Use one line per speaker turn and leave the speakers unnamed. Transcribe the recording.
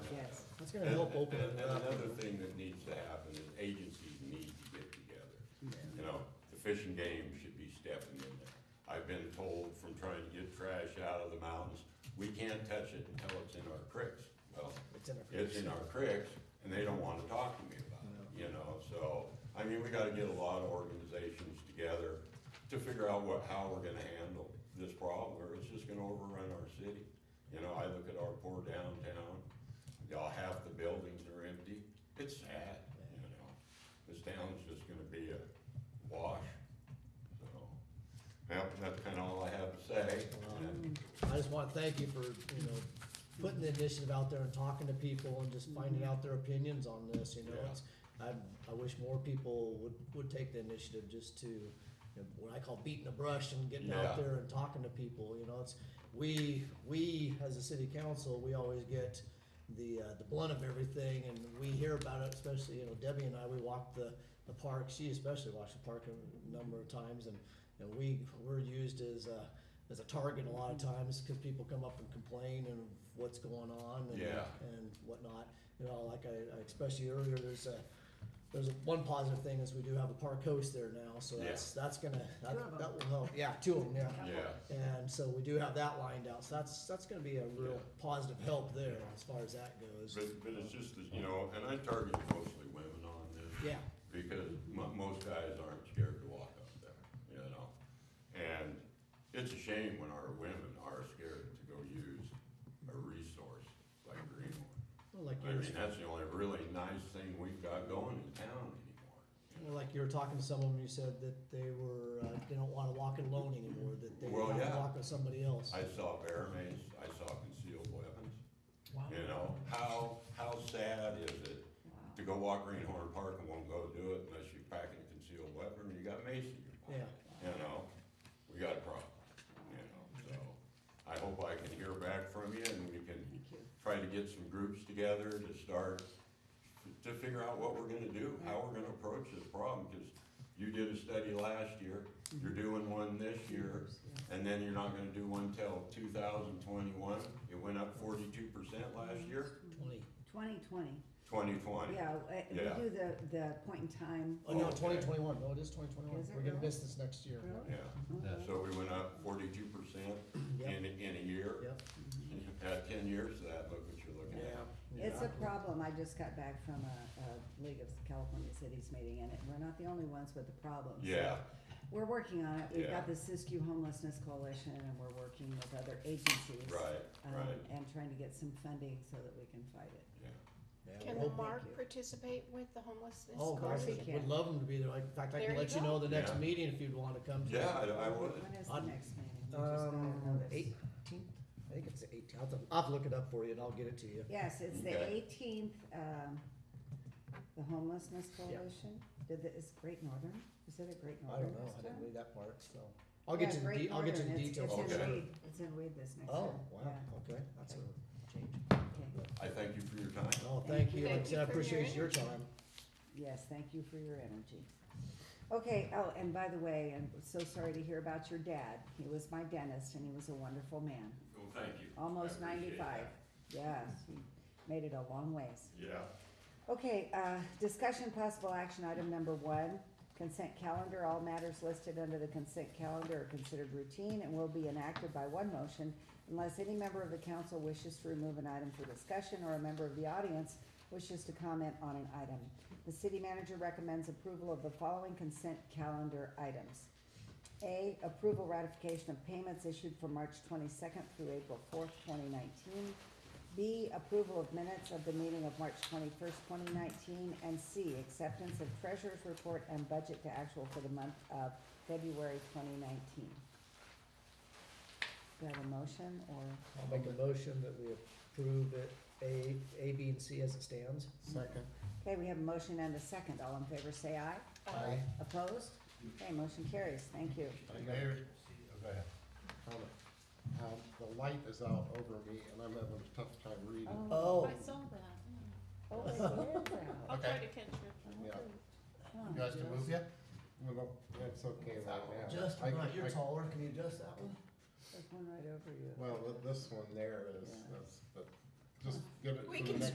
It's gonna help open
And- and-
it up.
And another thing that needs to happen is agencies need to get together. You know, the fish and game should be stepping in there. I've been told from trying to get trash out of the mountains, we can't touch it until it's in our creeks. Well,
It's in a
it's in our creeks, and they don't wanna talk to me about it, you know, so, I mean, we gotta get a lot of organizations together to figure out what, how we're gonna handle this problem, or it's just gonna overrun our city. You know, I look at our poor downtown, y'all, half the buildings are empty, it's sad, you know, this town's just gonna be a wash, so. Well, that's kinda all I have to say, and
I just wanna thank you for, you know, putting the initiative out there and talking to people and just finding out their opinions on this, you know,
Yeah.
it's, I, I wish more people would, would take the initiative just to, you know, what I call beating the brush and getting out
Yeah.
there and talking to people, you know, it's, we, we, as a city council, we always get the, uh, the blunt of everything, and we hear about it, especially, you know, Debbie and I, we walked the, the park, she especially watched the park a number of times, and, and we, we're used as, uh, as a target a lot of times, cause people come up and complain and what's going on and,
Yeah.
and whatnot. You know, like I, I expressed to you earlier, there's a, there's a, one positive thing is we do have a park host there now, so
Yeah.
that's, that's gonna, that,
Two of 'em.
that will help, yeah, two of them, yeah.
yeah,
And so we do have that lined out, so that's, that's gonna be a real
Yeah.
positive help there as far as that goes.
but, but it's just, that, you know, and I target mostly women on this.
Yeah,
because mo- most guys aren't scared to walk up there, you know? And it's a shame when our women are scared to go use a resource like Greenwood.
well, like
I
you were,
mean, that's the only really nice thing we've got going in town anymore.
well, like you were talking to someone, you said that they were, uh, they don't wanna walk it alone anymore, that they
Well,
wanna
yeah.
walk with somebody else.
I saw bear mace, I saw concealed weapons,
Wow.
you know? How, how sad is it to go walk Greenhorn Park and won't go do it unless you're packing a concealed weapon and you got mace in your pocket?
Yeah.
you know, we got a problem, you know, so I hope I can hear back from you and we can try to get some groups together to start, to figure out what we're gonna do, how we're gonna approach this problem, cause you did a study last year, you're doing one this year, and then you're not gonna do one till two thousand twenty-one, it went up forty-two percent last year,
Twenty,
Twenty twenty,
twenty twenty.
yeah, uh, we
Yeah.
do the, the point in time.
oh no,
Okay.
twenty twenty-one, no, it is twenty twenty-one,
Is it
we're gonna
really?
miss this next year.
Really?
Yeah,
Okay.
so we went up forty-two percent
Yep,
in, in a year.
yep,
At ten years of that, look what you're looking
yeah.
at.
It's a problem, I just got back from a, a League of California Cities meeting, and it- we're not the only ones with the problem. so
Yeah,
We're working on it, we've
Yeah.
got the Siskiyou Homelessness Coalition, and we're working with other agencies.
right,
um,
right,
And trying to get some funding so that we can fight it.
yeah.
Yeah,
Can
we'll-
Thank you.
Mark participate with the homelessness
Oh, gosh,
we
coalition?
can.
we'd love them to be there, Like, in fact, I can
There you
let you
go.
know the next
Yeah.
meeting if you'd wanna come to. it.
Yeah, I, I would,
When is the
I'd-
next meeting? We just got a
Um,
notice.
eighteenth, I think it's the eighteenth, I'll, have to- I'll have to look it up for you and I'll get it to you.
Yes, it's the
Okay.
eighteenth, um, the homelessness coalition, did the, is Great Northern, is it a Great
I
Northern
don't know, I
this
didn't
time?
read that part, so, I'll
Oh, Yeah,
get to the,
Great
de- I'll get to the
Northern. It's-
details.
It's
Okay.
in Reed, it's in Reed this next
Oh,
time,
wow,
yeah,
okay, that's a change.
okay,
I thank you for your time.
Oh,
Thank
thank
you.
you, like I
Thank you
said, I
for your
appreciate your time.
yes, thank you for your energy. Okay, oh, and by the way, I'm so sorry to hear about your dad, he was my dentist and he was a wonderful man,
Well, thank you.
almost
I appreciate
ninety-five,
that.
yes, he made it a long ways.
Yeah.
Okay, uh, discussion possible action item number one, consent calendar, all matters listed under the consent calendar are considered routine and will be enacted by one motion unless any member of the council wishes to remove an item for discussion or a member of the audience wishes to comment on an item. The city manager recommends approval of the following consent calendar items. A, approval ratification of payments issued from March twenty-second through April fourth, twenty nineteen. B, approval of minutes of the meeting of March twenty-first, twenty nineteen. And C, acceptance of treasurer's report and budget to actual for the month of February twenty nineteen. Do I have a motion or?
I'll make a motion that we approve it, A, A, B, and C as it stands. Second.
Okay, we have a motion and a second. All in favor, say aye.
Aye.
Opposed? Okay, motion carries. Thank you.
Mayor, oh, go ahead.
Comment.
Um, the light is out over me and I'm having a tough time reading.
Oh,
I saw that.
Oh, it is Oh, out.
I'll try
Okay.
to catch it.
Yeah.
Come on,
You guys can
Joe.
move yet? Move up. That's okay right now.
just
I-
right, you're
I-
taller, can you adjust that one?
There's one right over you.
Well, th- this one there is,
Yeah.
that's, but just give it
We
to the
can
next